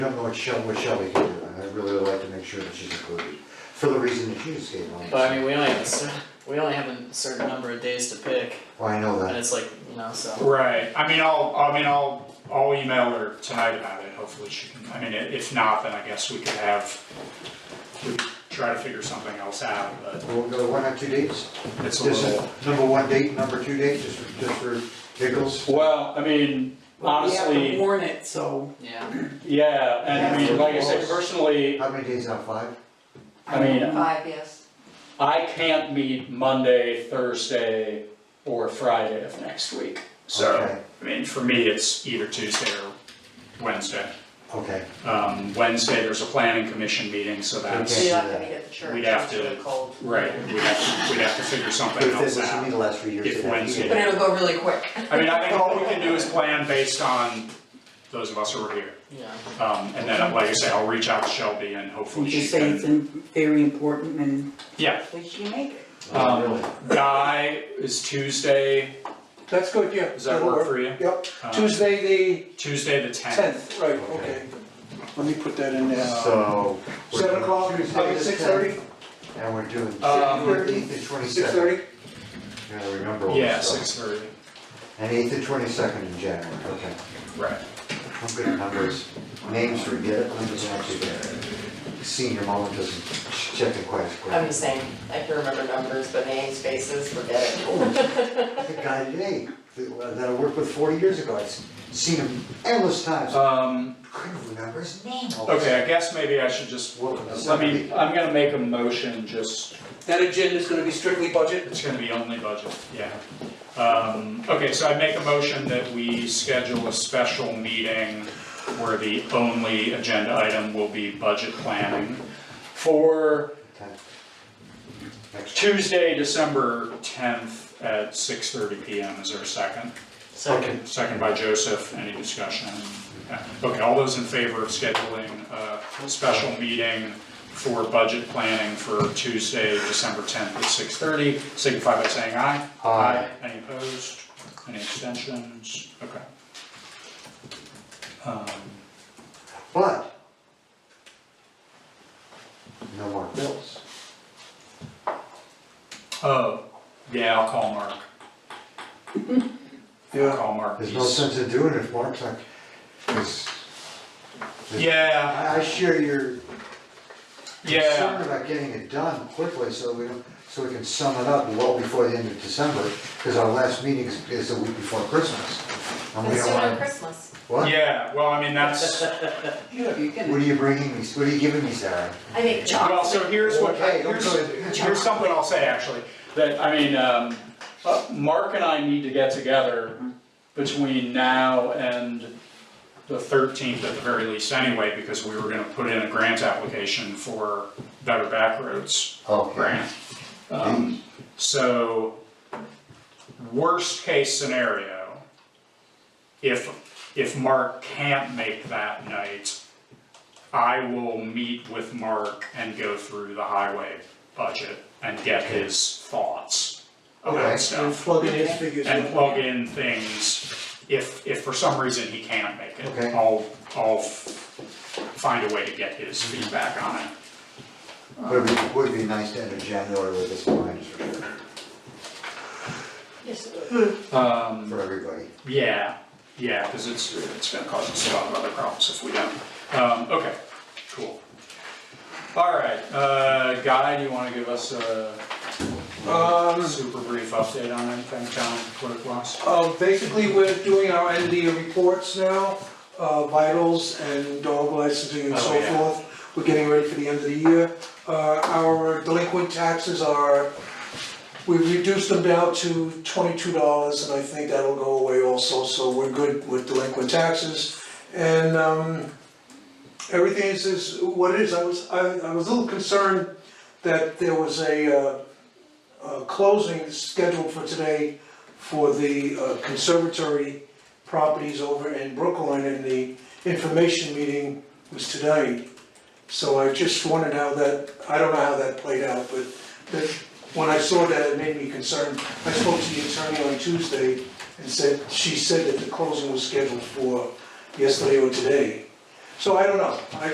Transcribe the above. I don't know what Shel- what Shelby can do, and I'd really like to make sure that she's included, for the reason that she just gave on. But I mean, we only have a certain, we only have a certain number of days to pick, Well, I know and that, it's like, you know, so. Right, I mean, I'll, I mean, I'll, I'll email her tonight about it, hopefully she can, I mean, i- if not, then I guess we could have, we could try to figure something else out, but we'll go one or two dates, it's a this little. is number one date, number two date, just, for- just for giggles. Well, I mean, Well, We have to honestly, warn it, so Yeah, yeah, and I mean, like I Yeah. said, personally, How many days out, five? I mean, uh, five, yes. I can't meet Monday, Thursday, or Friday of next week. So, Okay. I mean, for me, it's either Tuesday or Wednesday. Okay, Um, Wednesday, there's a planning commission meeting, so Okay. that's, We have to meet at the church. We'd have it's really to- cold. right, we'd have, we'd have to figure but something if else this is me out. the last three years. If then I Wednesday- But can- it'll go really quick. I mean, I think all we can do is plan based on those of us who are here. yeah. Um, and then, like I say, I'll reach out to Shelby and hopefully And she just say it's can, in- very important and yeah. we should make it. Oh, Um, really? Guy is Tuesday, That's good, yeah. does that work for you? Yep, Um, Tuesday Tuesday the the tenth. tenth, right, okay. Let me put that in there. So. we're Seven doing o'clock, Tuesday the six thirty, 10th, And we're doing Uh, Um, eighteenth and six twenty-second, thirty? gotta remember all Yeah, this stuff. six thirty, And eighth and twenty-second in January, okay, right. I'm good at numbers, names forget it, numbers actually get it. Senior moment doesn't check it quite as quick. I'm the same. I can remember numbers, but names, faces, forget it. The guy today that that I worked with forty years ago, I've seen him endless times, I Um, couldn't remember his name. Okay, I guess maybe I should just, I mean, I'm gonna make a motion, just, That agenda's gonna be strictly budget? it's gonna be only budget, yeah. Um, okay, so I make a motion that we schedule a special meeting where the only agenda item will be budget planning for Next. Tuesday, December tenth at six thirty P M. Is there a second? Second. Second by Joseph, any discussion? Yeah. Okay, all those in favor of scheduling a special meeting for budget planning for Tuesday, December tenth at six thirty, signify by saying aye. Aye. Any opposed, any abstentions, okay. Um, But. No more bills. Oh, yeah, I'll call Mark, I'll Yeah, call Mark. There's no He's- sense in doing it if Mark's not, 'cause Yeah, I I share your yeah. concern about getting it done quickly so we don't, so we can sum it up well before the end of December, because our last meeting is, is the week before Christmas. And we It's don't sooner than want, Christmas. what? Yeah, well, I mean, that's, You can- What are you bringing me, what are you giving me, Sarah? I make well, chocolate. so here's what, Okay, don't go here's, there. here's something I'll say, actually. that, I mean, um, uh, Mark and I need to get together between now and the thirteenth at the very least anyway, because we were gonna put in a grant application for Better Back Roads Okay. grant. Um, Hmm. so, worst case scenario, if, if Mark can't make that night, I will meet with Mark and go through the highway budget and get his thoughts Okay. about stuff. and plug in his figures. and in. plug in things if, if for some reason he can't make it. Okay. I'll, I'll f- find a way to get his Hmm. feedback on it. Would be, would be nice to end in January with this line for sure, Um, for everybody. yeah, yeah, cause it's, it's gonna cause us a lot of other problems if we don't. Um, okay, cool. All right, uh, Guy, do you wanna give us a Um, super brief update on anything, town clerk wise? Um, basically, we're doing our end of year reports now, uh, vitals and dog licensing and Oh, so yeah. forth. We're getting ready for the end of the year. Uh, our delinquent taxes are, we've reduced them down to twenty-two dollars, and I think that'll go away also, so we're good with delinquent taxes. And, um, everything is, is what it is. I was, I, I was a little concerned that there was a, uh, uh, closing scheduled for today for the uh, conservatory properties over in Brookline, and the information meeting was today. So I just wondered how that, I don't know how that played out, but that, when I saw that, it made me concerned. I spoke to the attorney on Tuesday and said, she said that the closing was scheduled for yesterday or today. So I don't know, I